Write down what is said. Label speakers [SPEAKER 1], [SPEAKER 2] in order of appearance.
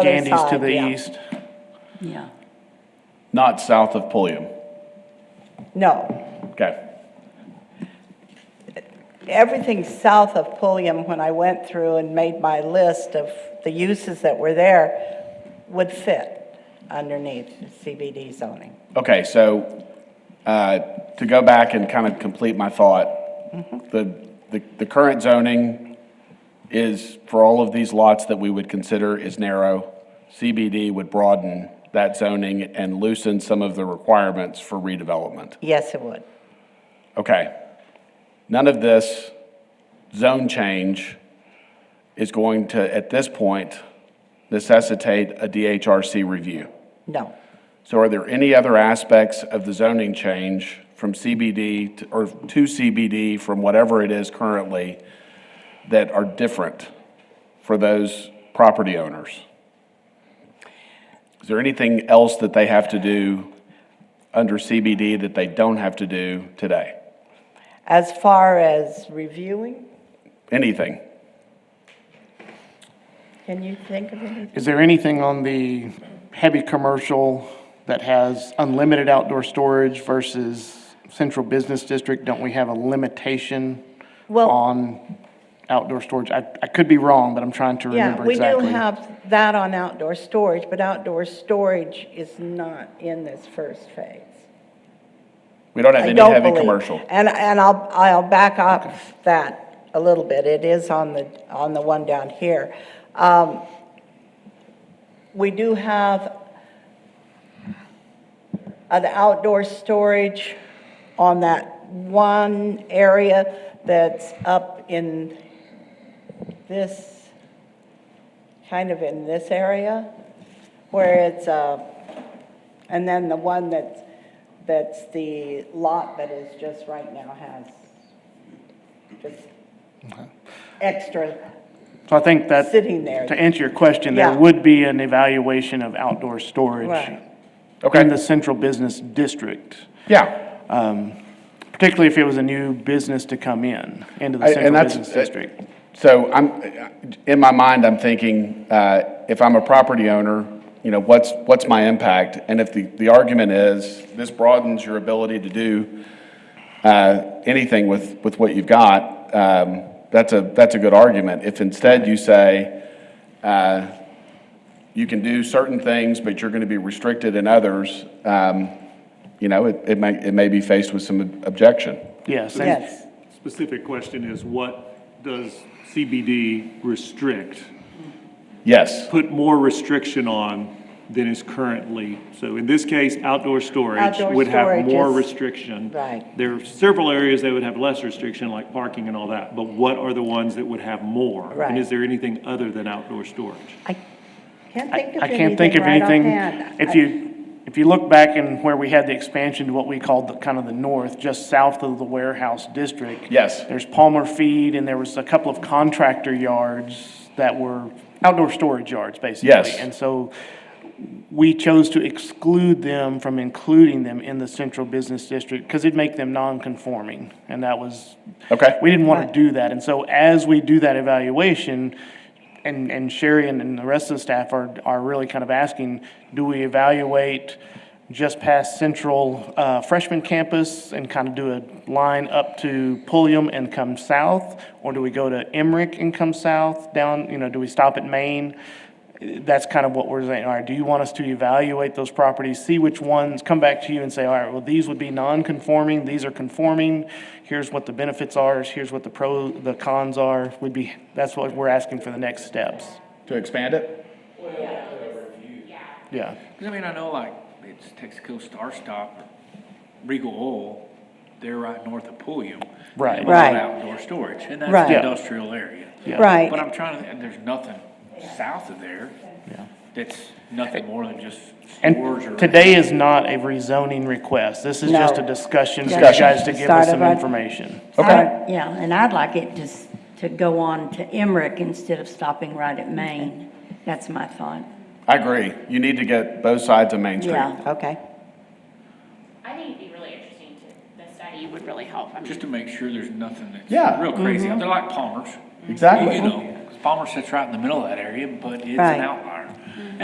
[SPEAKER 1] Other
[SPEAKER 2] Gandy's to
[SPEAKER 1] side, yeah.
[SPEAKER 2] the east,
[SPEAKER 3] Yeah.
[SPEAKER 4] Not south of Pulliam.
[SPEAKER 1] No,
[SPEAKER 4] Okay.
[SPEAKER 1] everything south of Pulliam, when I went through and made my list of the uses that were there, would fit underneath CBD zoning.
[SPEAKER 4] Okay, so uh, to go back and kind of complete my thought, the, the, the current zoning is, for all of these lots that we would consider is narrow. CBD would broaden that zoning and loosen some of the requirements for redevelopment.
[SPEAKER 1] Yes, it would.
[SPEAKER 4] Okay. None of this zone change is going to, at this point, necessitate a DHRC review.
[SPEAKER 1] No,
[SPEAKER 4] So are there any other aspects of the zoning change from CBD to- or to CBD from whatever it is currently that are different for those property owners? Is there anything else that they have to do under CBD that they don't have to do today?
[SPEAKER 1] as far as reviewing,
[SPEAKER 4] Anything?
[SPEAKER 1] can you think of anything?
[SPEAKER 2] Is there anything on the heavy commercial that has unlimited outdoor storage versus central business district? Don't we have a limitation
[SPEAKER 1] Well-
[SPEAKER 2] on outdoor storage? I, I could be wrong, but I'm trying to
[SPEAKER 1] Yeah,
[SPEAKER 2] remember
[SPEAKER 1] we do
[SPEAKER 2] exactly.
[SPEAKER 1] have that on outdoor storage, but outdoor storage is not in this first phase.
[SPEAKER 4] We don't have
[SPEAKER 1] I
[SPEAKER 4] any
[SPEAKER 1] don't
[SPEAKER 4] heavy
[SPEAKER 1] believe.
[SPEAKER 4] commercial.
[SPEAKER 1] And, and I'll, I'll back up that a little bit. It is on the, on the one down here. Um, We do have an outdoor storage on that one area that's up in this, kind of in this area, where it's, uh, and then the one that's, that's the lot that is just right now has just extra,
[SPEAKER 2] So I think that,
[SPEAKER 1] sitting there.
[SPEAKER 2] to answer your question, there
[SPEAKER 1] Yeah.
[SPEAKER 2] would be an evaluation of outdoor storage
[SPEAKER 1] Right.
[SPEAKER 4] Okay.
[SPEAKER 2] in the central business district,
[SPEAKER 4] Yeah.
[SPEAKER 2] particularly if it was a new business to come in, into the
[SPEAKER 4] I- and
[SPEAKER 2] central
[SPEAKER 4] that's-
[SPEAKER 2] business district.
[SPEAKER 4] So I'm, in my mind, I'm thinking, uh, if I'm a property owner, you know, what's, what's my impact? And if the, the argument is, this broadens your ability to do uh, anything with, with what you've got, um, that's a, that's a good argument. If instead you say, uh, you can do certain things, but you're going to be restricted in others, um, you know, it, it may, it may be faced with some objection.
[SPEAKER 2] Yes, and-
[SPEAKER 1] Yes,
[SPEAKER 5] Specific question is, what does CBD restrict?
[SPEAKER 4] Yes.
[SPEAKER 5] Put more restriction on than is currently, so in this case, outdoor storage
[SPEAKER 1] Outdoor
[SPEAKER 5] would have
[SPEAKER 1] storage
[SPEAKER 5] more
[SPEAKER 1] is-
[SPEAKER 5] restriction.
[SPEAKER 1] Right.
[SPEAKER 5] There are several areas that would have less restriction, like parking and all that, but what are the ones that would have more?
[SPEAKER 1] Right.
[SPEAKER 5] And is there anything other than outdoor storage?
[SPEAKER 1] I can't think of
[SPEAKER 2] I
[SPEAKER 1] anything
[SPEAKER 2] can't think of
[SPEAKER 1] right
[SPEAKER 2] anything.
[SPEAKER 1] offhand.
[SPEAKER 2] If you, if you look back and where we had the expansion to what we called the, kind of the north, just south of the warehouse district.
[SPEAKER 4] Yes.
[SPEAKER 2] There's Palmer Feed and there was a couple of contractor yards that were outdoor storage yards, basically.
[SPEAKER 4] Yes.
[SPEAKER 2] And so we chose to exclude them from including them in the central business district because it'd make them non-conforming. And that was.
[SPEAKER 4] Okay.
[SPEAKER 2] We didn't want to do that. And so as we do that evaluation, and, and Sherry and, and the rest of the staff are, are really kind of asking, do we evaluate just past Central uh, freshman campus and kind of do a line up to Pulliam and come south? Or do we go to Emmerich and come south, down, you know, do we stop at Maine? That's kind of what we're saying, all right, do you want us to evaluate those properties, see which ones, come back to you and say, all right, well, these would be non-conforming, these are conforming, here's what the benefits are, here's what the pro, the cons are, would be, that's what we're asking for the next steps,
[SPEAKER 4] To expand it?
[SPEAKER 2] yeah.
[SPEAKER 6] Because I mean, I know like it's Texaco Star Stop or Regal Oil, they're right north of Pulliam.
[SPEAKER 2] Right.
[SPEAKER 6] They have a lot of
[SPEAKER 1] Right.
[SPEAKER 6] Outdoor storage, and that's
[SPEAKER 1] Right.
[SPEAKER 6] the
[SPEAKER 1] Yeah.
[SPEAKER 6] industrial area. But
[SPEAKER 1] Right,
[SPEAKER 6] I'm trying to, and there's nothing south of there that's nothing more than just stores or.
[SPEAKER 2] And today is not a rezoning request, this is just a
[SPEAKER 1] No.
[SPEAKER 2] discussion for you
[SPEAKER 4] Discussion.
[SPEAKER 2] guys to give
[SPEAKER 1] Start
[SPEAKER 2] us some
[SPEAKER 1] of a-
[SPEAKER 2] information.
[SPEAKER 4] Okay.
[SPEAKER 3] Yeah, and I'd like it to, s- to go on to Emmerich instead of stopping right at Maine. That's my thought.
[SPEAKER 4] I agree. You need to get both sides of Main Street.
[SPEAKER 3] Yeah,
[SPEAKER 1] okay.
[SPEAKER 7] I think it'd be really interesting to, the study would really help. I mean,
[SPEAKER 6] Just to make sure there's nothing that's.
[SPEAKER 4] Yeah.
[SPEAKER 6] Real crazy.
[SPEAKER 1] Mm-hmm.
[SPEAKER 6] They're like Palmer's.
[SPEAKER 4] Exactly.
[SPEAKER 6] You know, 'cause Palmer sits right in the middle of that area, but it's
[SPEAKER 1] Right. Mm-hmm.
[SPEAKER 6] an outlier.